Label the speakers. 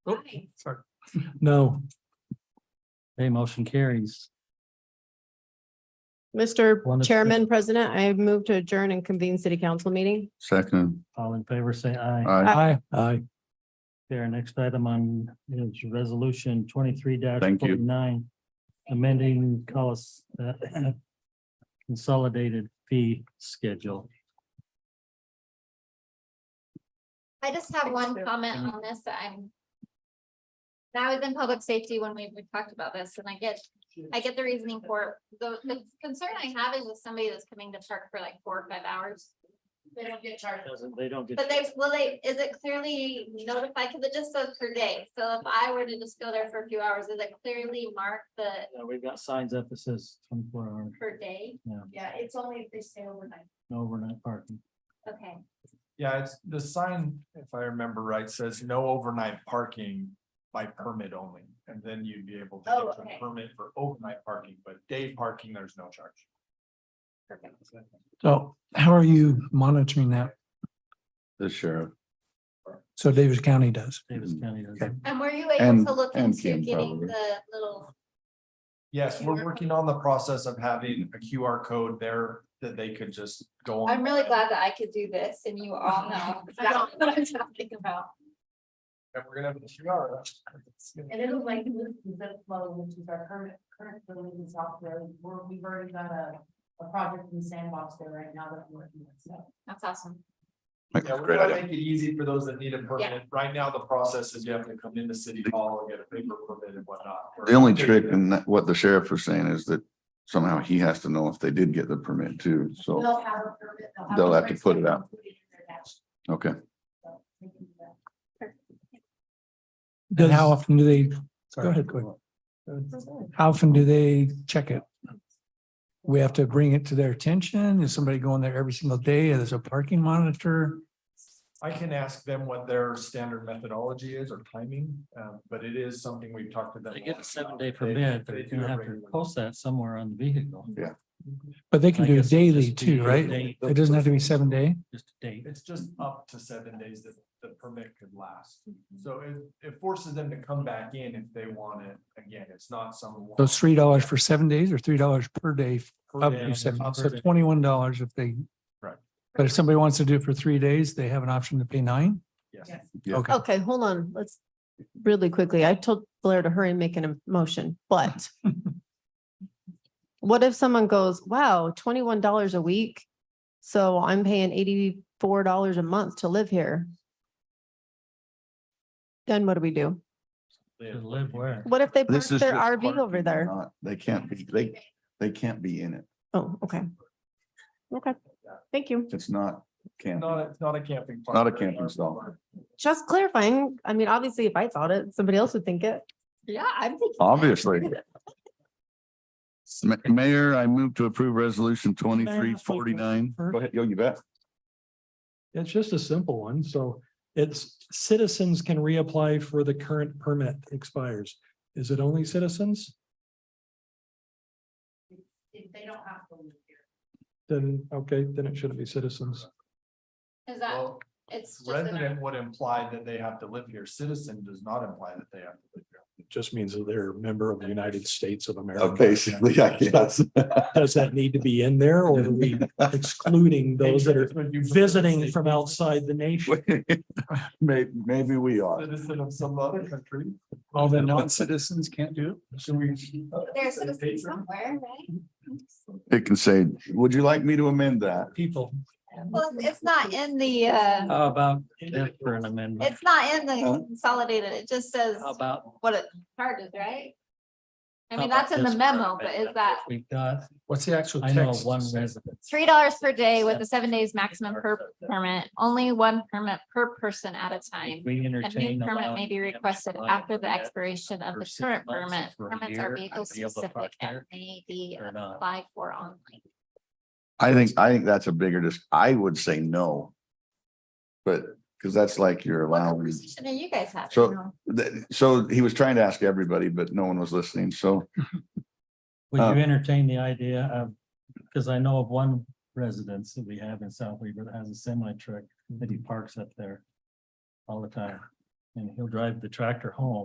Speaker 1: Oh,
Speaker 2: Aye.
Speaker 1: Sorry.
Speaker 3: No. Okay, motion carries.
Speaker 4: Mr.
Speaker 3: Wonderful.
Speaker 4: Chairman, President, I move to adjourn and convene city council meeting.
Speaker 5: Second,
Speaker 3: All in favor, say aye.
Speaker 4: Uh,
Speaker 5: I
Speaker 1: Aye. Aye.
Speaker 3: There, next item on is resolution twenty-three
Speaker 5: Thank you.
Speaker 3: forty-nine. Amending cost uh, consolidated fee schedule.
Speaker 2: I just have one comment
Speaker 5: Mm-hmm.
Speaker 2: on this, that I'm. That was in public safety when we we talked about this, and I get, I get the reasoning for it. The, the concern I have is with somebody that's coming to park for like four or five hours. They don't get charged.
Speaker 3: Doesn't, they don't get.
Speaker 2: But they, will they, is it clearly notified, because it just says per day, so if I were to just go there for a few hours, is it clearly marked the
Speaker 3: Yeah, uh, We've got signs up that says twenty-four hour,
Speaker 2: per day?
Speaker 6: Yeah, it's only if they stay overnight.
Speaker 3: no overnight parking.
Speaker 2: Okay,
Speaker 1: Yeah, it's the sign, if I remember right, says no overnight parking by permit only. And then you'd be able
Speaker 2: Oh,
Speaker 1: to get
Speaker 2: okay.
Speaker 1: a permit for overnight parking, but day parking, there's no charge.
Speaker 2: perfect.
Speaker 7: So how are you monitoring that?
Speaker 5: the sheriff
Speaker 7: So Davis County does.
Speaker 3: Davis
Speaker 5: Mm-hmm.
Speaker 3: County does.
Speaker 7: Okay.
Speaker 2: And were you able
Speaker 5: And-
Speaker 2: to look
Speaker 5: and
Speaker 2: into
Speaker 5: Kim
Speaker 2: getting
Speaker 5: probably.
Speaker 2: the little,
Speaker 1: Yes,
Speaker 2: QR
Speaker 1: we're working on the process of having a QR code there that they could just go on.
Speaker 2: I'm really glad that I could do this and you all know. exactly what I'm talking about.
Speaker 1: And we're gonna have a QR. It's gonna-
Speaker 6: And it'll like move to zip flow, which is our current, current building in software. We're, we've already got a, a project in the sandbox there right now that we're working on, so.
Speaker 2: That's awesome.
Speaker 5: That's
Speaker 1: Yeah,
Speaker 5: a
Speaker 1: we're
Speaker 5: great
Speaker 1: gonna
Speaker 5: idea.
Speaker 1: make it easy for those that need a permit. Right now, the process is you have to come into city hall and get a paper permit and whatnot.
Speaker 5: The only trick and that- what the sheriff was saying is that somehow he has to know if they did get the permit too. So,
Speaker 6: They'll have a permit.
Speaker 5: They'll have to put it out.
Speaker 6: included in their dash,
Speaker 5: okay.
Speaker 6: so they can do that.
Speaker 7: And how
Speaker 3: Does-
Speaker 7: often do they,
Speaker 1: Sorry.
Speaker 7: go ahead, quick. How often do they check it? We have to bring it to their attention? Is somebody going there every single day? Is there a parking monitor?
Speaker 1: I can ask them what their standard methodology is or timing, um, but it is something we've talked to them.
Speaker 3: They get a
Speaker 1: about.
Speaker 3: seven-day
Speaker 1: They-
Speaker 3: permit,
Speaker 1: they
Speaker 3: they're
Speaker 1: do
Speaker 3: gonna
Speaker 1: it
Speaker 3: have to
Speaker 1: regularly.
Speaker 3: post that somewhere on the vehicle.
Speaker 7: But they
Speaker 3: I
Speaker 7: can do
Speaker 3: guess
Speaker 7: it
Speaker 3: it'd
Speaker 7: daily
Speaker 3: just be
Speaker 7: too,
Speaker 3: a
Speaker 7: right?
Speaker 3: date.
Speaker 7: It doesn't have to be seven day.
Speaker 3: Just a date.
Speaker 1: It's just up to seven days that the permit could last.
Speaker 5: Mm-hmm.
Speaker 1: So it, it forces them to come back in if they want it. Again, it's not some.
Speaker 7: So it's three dollars for seven days or three dollars per day
Speaker 1: per
Speaker 7: up
Speaker 1: day.
Speaker 7: to seven,
Speaker 1: Up
Speaker 7: so
Speaker 1: to-
Speaker 7: twenty-one dollars if they.
Speaker 1: Right.
Speaker 7: But if somebody wants to do it for three days, they have an option to pay nine?
Speaker 1: Yes.
Speaker 6: Yes.
Speaker 5: Yeah.
Speaker 7: Okay.
Speaker 4: Okay, hold on. Let's really quickly. I told Blair to hurry and make an motion, but what if someone goes, wow, twenty-one dollars a week? So I'm paying eighty-four dollars a month to live here. Then what do we do?
Speaker 1: They-
Speaker 3: To live where?
Speaker 4: What if they park
Speaker 5: This is
Speaker 4: their
Speaker 5: just
Speaker 4: RV
Speaker 5: parking,
Speaker 4: over there?
Speaker 5: not- They can't be, they, they can't be in it.
Speaker 4: Oh, okay. Okay, thank you.
Speaker 5: It's not camp.
Speaker 1: Not, it's not a camping.
Speaker 5: Not a
Speaker 1: park.
Speaker 5: camping stall.
Speaker 4: Just clarifying. I mean, obviously, if I thought it, somebody else would think it.
Speaker 2: Yeah, I'm thinking. that.
Speaker 5: Obviously. Ma- Mayor, I move to approve resolution twenty-three forty-nine. Go ahead, yo, you bet.
Speaker 8: It's just a simple one, so it's citizens can reapply for the current permit expires. Is it only citizens?
Speaker 6: If they don't have to live here.
Speaker 8: Then, okay, then it shouldn't be citizens.
Speaker 2: Is that,
Speaker 1: Well,
Speaker 2: it's just. an-
Speaker 1: Resident would imply that they have to live here. Citizen does not imply that they have to live here.
Speaker 8: It just means that they're a member of the United States of America.
Speaker 5: Uh, Basically, I guess.
Speaker 8: Does that need to be in there or are we excluding those that are visiting from outside the nation?
Speaker 5: May, maybe we are.
Speaker 1: Citizen of some other country.
Speaker 7: All the non-citizens can't do it?
Speaker 1: Should we?
Speaker 2: There's citizens somewhere, right?
Speaker 5: It can say, would you like me to amend that?
Speaker 7: People.
Speaker 2: Well, it's it's not in the, uh,
Speaker 3: How about that for an amendment?
Speaker 2: it's not in
Speaker 5: Huh?
Speaker 2: the consolidated, it just says
Speaker 3: How about?
Speaker 2: what it charges, right? I
Speaker 3: how
Speaker 2: mean,
Speaker 3: about
Speaker 2: that's in the
Speaker 3: this for an
Speaker 2: memo, but is
Speaker 3: amendment?
Speaker 2: that
Speaker 3: We've got,
Speaker 1: What's the actual
Speaker 3: I know one resident.
Speaker 2: three dollars per day with the seven days maximum per permit, only one permit per person at a time?
Speaker 3: If We
Speaker 2: A
Speaker 3: entertain.
Speaker 2: new permit may
Speaker 3: allowing
Speaker 2: be
Speaker 3: them to
Speaker 2: requested
Speaker 3: apply
Speaker 2: after
Speaker 3: for
Speaker 2: the
Speaker 3: that
Speaker 2: expiration of
Speaker 3: for
Speaker 2: the
Speaker 3: six
Speaker 2: current
Speaker 3: months,
Speaker 2: permit.
Speaker 3: for a
Speaker 2: Permits are
Speaker 3: year,
Speaker 2: vehicle
Speaker 3: I'd be able to
Speaker 2: specific
Speaker 3: park
Speaker 2: and
Speaker 3: there
Speaker 2: may be
Speaker 3: Or not.
Speaker 2: applied for online.
Speaker 5: I think, I think that's a bigger, dis I would say no. But, because that's like you're
Speaker 2: What
Speaker 5: allowing,
Speaker 2: conversation are you guys having?
Speaker 5: So- that- so he was trying to ask everybody, but no one was listening, so.
Speaker 3: Would
Speaker 5: Um,
Speaker 3: you entertain the idea of, because I know of one residence that we have in South Weaver that has a semi truck that he parks up there all the time. and he'll drive the tractor home.